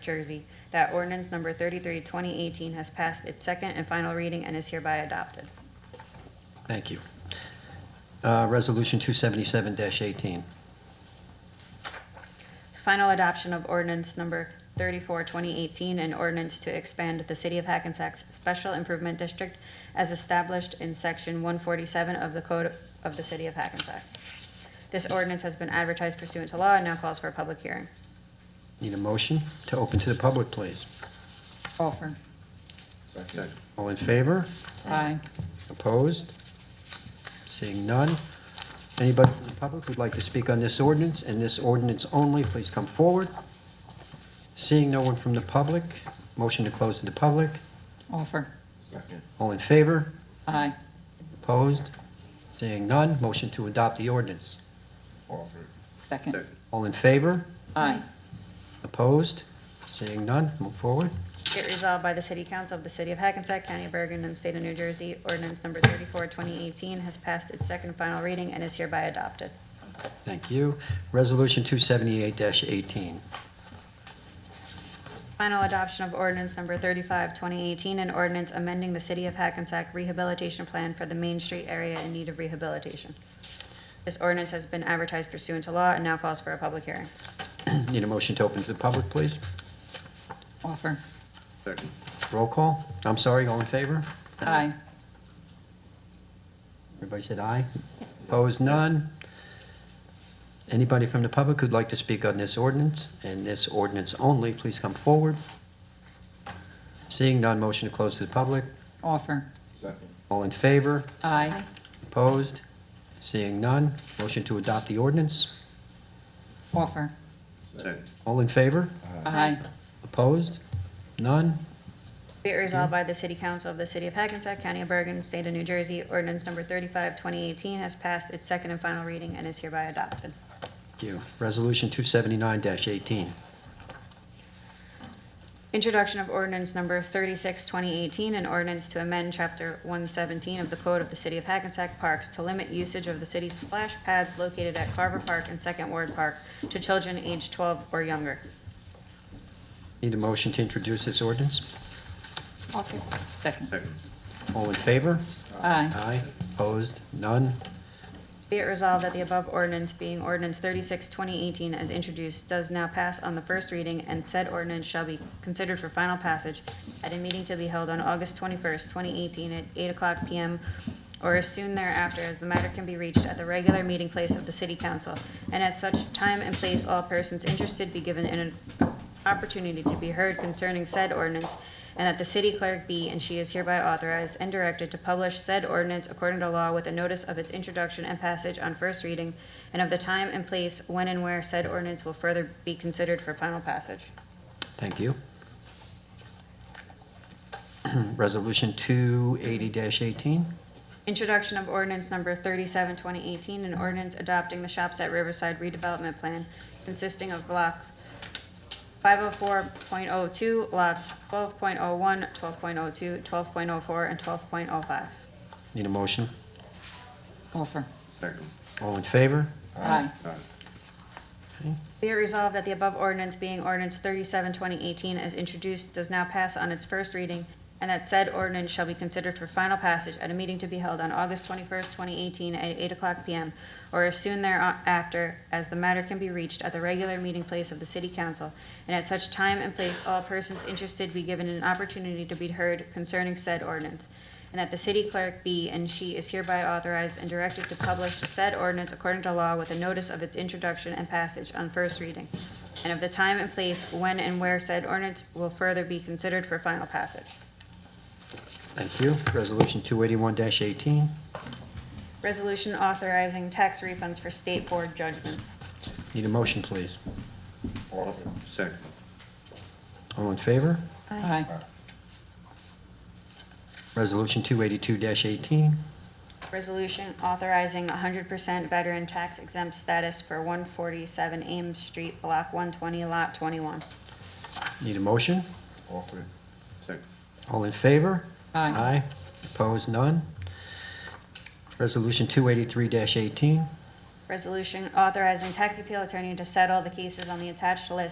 Jersey, that ordinance number 33, 2018 has passed its second and final reading and is hereby adopted. Thank you. Uh, Resolution 277-18. Final adoption of ordinance number 34, 2018, an ordinance to expand the City of Hackensack's Special Improvement District as established in Section 147 of the Code of the City of Hackensack. This ordinance has been advertised pursuant to law and now calls for a public hearing. Need a motion to open to the public, please. Offer. Second. All in favor? Aye. Opposed? Seeing none. Anybody from the public who'd like to speak on this ordinance and this ordinance only, please come forward. Seeing no one from the public, motion to close to the public. Offer. Second. All in favor? Aye. Opposed? Seeing none, motion to adopt the ordinance. Offer. Second. All in favor? Aye. Opposed? Seeing none, move forward. Be it resolved by the City Council of the City of Hackensack, County of Bergen, and State of New Jersey, ordinance number 34, 2018 has passed its second and final reading and is hereby adopted. Thank you. Resolution 278-18. Final adoption of ordinance number 35, 2018, an ordinance amending the City of Hackensack Rehabilitation Plan for the Main Street area in need of rehabilitation. This ordinance has been advertised pursuant to law and now calls for a public hearing. Need a motion to open to the public, please? Offer. Second. Roll call. I'm sorry, all in favor? Aye. Everybody said aye? Opposed, none? Anybody from the public who'd like to speak on this ordinance and this ordinance only, please come forward. Seeing none, motion to close to the public. Offer. Second. All in favor? Aye. Opposed? Seeing none, motion to adopt the ordinance. Offer. Second. All in favor? Aye. Opposed? None? Be it resolved by the City Council of the City of Hackensack, County of Bergen, State of New Jersey, ordinance number 35, 2018 has passed its second and final reading and is hereby adopted. Thank you. Resolution 279-18. Introduction of ordinance number 36, 2018, an ordinance to amend Chapter 117 of the Code of the City of Hackensack Parks to limit usage of the city's splash pads located at Carver Park and Second Ward Park to children aged 12 or younger. Need a motion to introduce this ordinance? Offer. Second. Second. All in favor? Aye. Aye. Opposed? None? Be it resolved that the above ordinance, being ordinance 36, 2018, as introduced, does now pass on the first reading, and said ordinance shall be considered for final passage at a meeting to be held on August 21st, 2018, at 8 o'clock PM or as soon thereafter, as the matter can be reached at the regular meeting place of the city council. And at such time and place, all persons interested be given an opportunity to be heard concerning said ordinance, and that the city clerk be, and she is hereby authorized and directed to publish said ordinance according to law with a notice of its introduction and passage on first reading, and of the time and place when and where said ordinance will further be considered for final passage. Thank you. Resolution 280-18. Introduction of ordinance number 37, 2018, an ordinance adopting the Shops at Riverside redevelopment plan consisting of blocks 504.02, lots 12.01, 12.02, 12.04, and 12.05. Need a motion? Offer. Second. All in favor? Aye. Okay. Be it resolved that the above ordinance being ordinance 37, 2018, as introduced, does now pass on its first reading, and that said ordinance shall be considered for final passage at a meeting to be held on August 21st, 2018, at 8 o'clock PM, or as soon thereafter, as the matter can be reached at the regular meeting place of the city council, and at such time and place, all persons interested be given an opportunity to be heard concerning said ordinance, and that the city clerk be and she is hereby authorized and directed to publish said ordinance according to law with a notice of its introduction and passage on first reading, and of the time and place when and where said ordinance will further be considered for final passage. Thank you. Resolution 281-18. Resolution authorizing tax refunds for state board judgments. Need a motion, please. Offer. Second. All in favor? Aye. Resolution 282-18. Resolution authorizing hundred percent veteran tax exempt status for one forty-seven Ames Street, block one twenty, lot twenty-one. Need a motion? Offer. Second. All in favor? Aye. Aye. Opposed? None? Resolution 283-18. Resolution authorizing tax appeal attorney to settle the cases on the attached list